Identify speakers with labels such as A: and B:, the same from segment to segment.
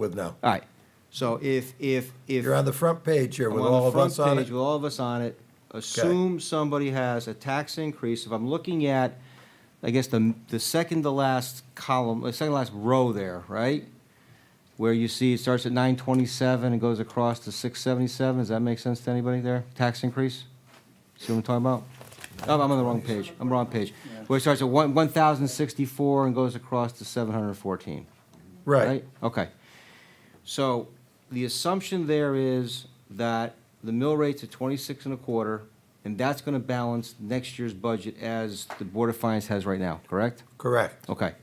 A: with now.
B: All right. So if, if, if.
A: You're on the front page here
B: I'm
A: with
B: on the
A: all of
B: front
A: us on
B: page
A: it.
B: With all of us on it. Assume somebody has a tax increase. If I'm looking at, I guess, the, the second to last column, the second to last row there, right? Where you see it starts at nine twenty-seven and goes across to six seventy-seven. Does that make sense to anybody there? Tax increase? See what I'm talking about? Oh, I'm on the wrong page. I'm wrong page. Where it starts at one, one thousand sixty-four and goes across to seven hundred and fourteen
A: Right.
B: okay. So the assumption there is that the mill rate's at twenty-six and a quarter, and that's gonna balance next year's budget as the Board of Finance has right now, correct?
A: Correct.
B: Okay.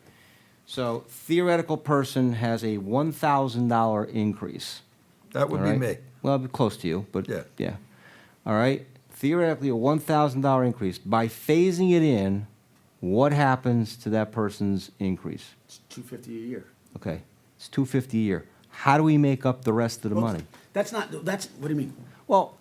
B: So theoretical person has a one thousand dollar increase.
A: That would
B: all
A: be
B: right?
A: me.
B: Well, it'd be close to you, but,
A: Yeah.
B: yeah. All right, theoretically, a one thousand dollar increase. By phasing it in, what happens to that person's increase?
C: It's two fifty a year.
B: Okay, it's two fifty a year. How do we make up the rest of the money?
C: That's not, that's, what do you mean?
B: Well,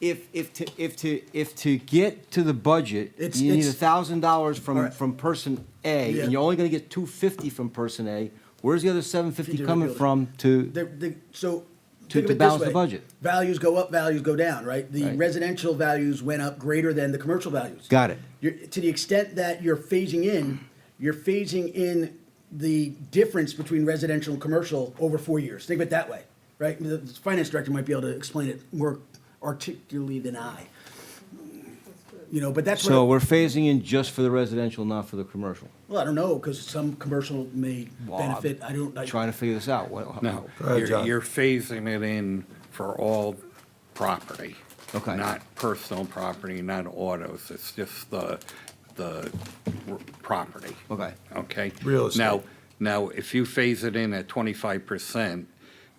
B: if, if to, if to, if to get to the budget,
C: It's-
B: you need a
C: it's-
B: thousand dollars
C: All
B: from,
C: right.
B: from person A,
C: Yeah.
B: and you're only gonna get two fifty from person A, where's the other seven
C: If you
B: fifty
C: do the
B: coming
C: building.
B: from to,
C: The, the, so.
B: To-
C: think of
B: to
C: it this
B: balance the
C: way.
B: budget.
C: Values go up, values go down, right? The
B: Right.
C: residential values went up greater than the commercial values.
B: got it?
C: You're, to the extent that you're phasing in, you're phasing in the difference between residential and commercial over four years. Think of it that way, right? The the finance director might be able to explain it more articulately than I. You know, but that's what.
B: So we're phasing in just for the residential, not for the commercial.
C: Well, I don't know, because some commercial may
B: Well, I'm
C: benefit, I don't, I,
B: Trying to figure this out, what,
D: No,
A: Oh, Go ahead,
D: you're
A: John.
D: you're phasing it in for all property.
B: Okay.
D: Not personal property, not autos, it's just the, the r- property.
B: Okay.
D: Okay?
A: Real estate.
D: Now, now, if you phase it in at twenty-five percent,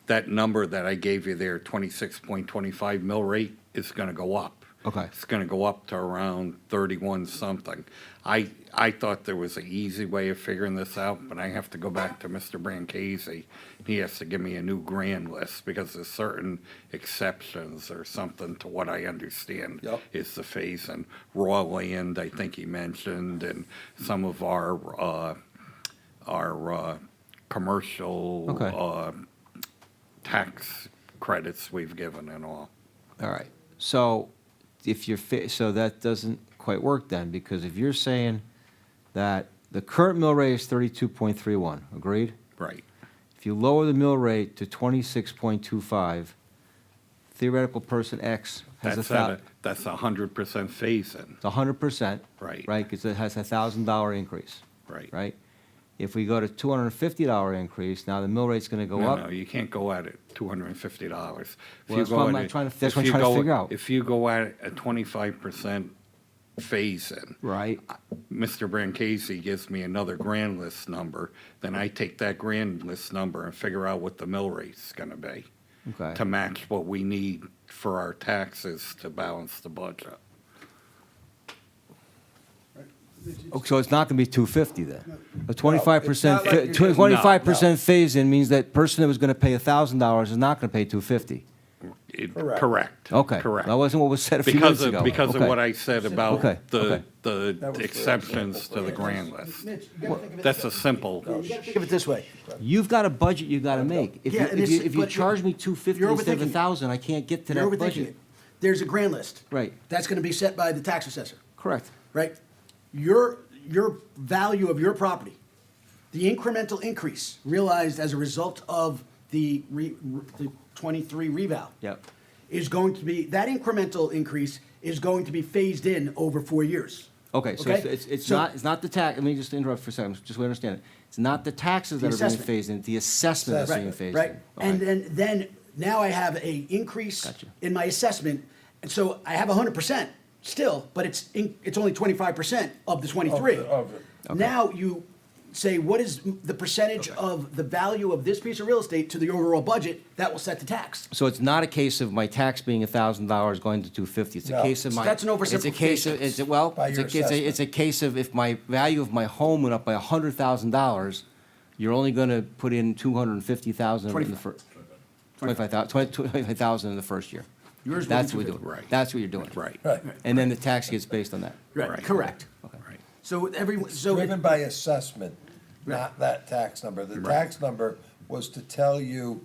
D: that number that I gave you there, twenty-six point twenty-five mill rate, is gonna go up.
B: Okay.
D: It's gonna go up to around thirty-one something. I, I thought there was an easy way of figuring this out, but I have to go back to Mr. Brancisi. He has to give me a new grand list, because there's certain exceptions or something to what I understand
A: Yep.
D: is the phase, and raw land, I think he mentioned, and some of our, uh, our, uh, commercial,
B: Okay.
D: uh, tax credits we've given and all.
B: All right, so if you're, fa- so that doesn't quite work then, because if you're saying that the current mill rate is thirty-two point three one, agreed?
D: Right.
B: If you lower the mill rate to twenty-six point two five, theoretical person X has a
D: That's at
B: thou,
D: a, that's a hundred percent phase-in,
B: a hundred percent.
D: Right.
B: Right, because it has a thousand dollar increase,
D: right?
B: right? If we go to two hundred and fifty dollar increase, now the mill rate's gonna go
D: No,
B: up.
D: no, you can't go at it two hundred and fifty dollars.
B: Well, that's what I'm not trying to- that's what I'm trying to figure out.
D: If you go at a twenty-five percent phase-in,
B: Right,
D: Mr. Brancisi gives me another grand list number, then I take that grand list number and figure out what the mill rate's gonna be to
B: okay.
D: match what we need for our taxes to balance the budget.
B: Oh, So it's not gonna be two fifty then? A twenty-five percent,
A: not like-
D: No, no.
B: twenty-five percent phase-in means that person that was gonna pay thousand dollars is not gonna pay two fifty.
D: It-
A: Correct.
D: Correct.
B: Okay.
D: Correct.
B: That wasn't what was said a few
D: Because
B: minutes
D: of,
B: ago.
D: because of
B: Okay.
D: what I said
B: Okay,
D: about the,
B: okay.
D: the exceptions to the grand list.
C: Mitch, you gotta think of it.
D: That's a simple,
C: Think of it this way.
B: You've got a budget you gotta make. If you,
C: Yeah, and
B: if you,
C: it's-
B: if you
C: but
B: charge
C: you're-
B: me two fifty
C: you're
B: instead of a
C: overthinking it.
B: thousand, I can't get to
C: You're
B: that
C: overthinking
B: budget.
C: it. There's a grand list.
B: Right.
C: That's gonna be set by the tax assessor,
B: Correct.
C: right? Your, your value of your property, the incremental increase realized as a result of the re, the twenty-three reval.
B: Yep.
C: Is going to be, that incremental increase is going to be phased in over four years.
B: Okay, so it's, it's- it's
C: So-
B: not, it's not the tax, let me just interrupt for a second, just so I understand it. It's not the taxes
C: The
B: that are being
C: assessment.
B: phased in, the assessment that's being
C: Right,
B: phased in.
C: right.
B: All
C: And
B: right.
C: then, then now I have a increase
B: Gotcha.
C: in my assessment, and so I have hundred percent still, but it's, in- it's only twenty-five percent of the twenty-three. Now you say, what is m- the percentage of the value of this piece of real estate to the overall budget that will set the tax?
B: So it's not a case of my tax being thousand dollars going to two fifty, it's a
A: No.
B: case of my.
C: That's an
B: It's a case of,
C: oversimplification.
B: it's, a- well,
A: By
B: it's a,
A: your
B: it's a, it's a case of if my value of my home went up by hundred thousand dollars, you're only gonna put in two hundred and fifty thousand in the first. Twenty-five thousand in the first year.
C: Yours will be
B: That's what we're
C: 250.
B: doing,
D: Right.
B: that's what you're doing.
D: right.
A: Right.
B: And then the tax gets based on that.
D: Right.
C: Correct.
D: Right.
C: So every, so. it-
A: Driven by assessment, not that tax number. The tax number was to tell you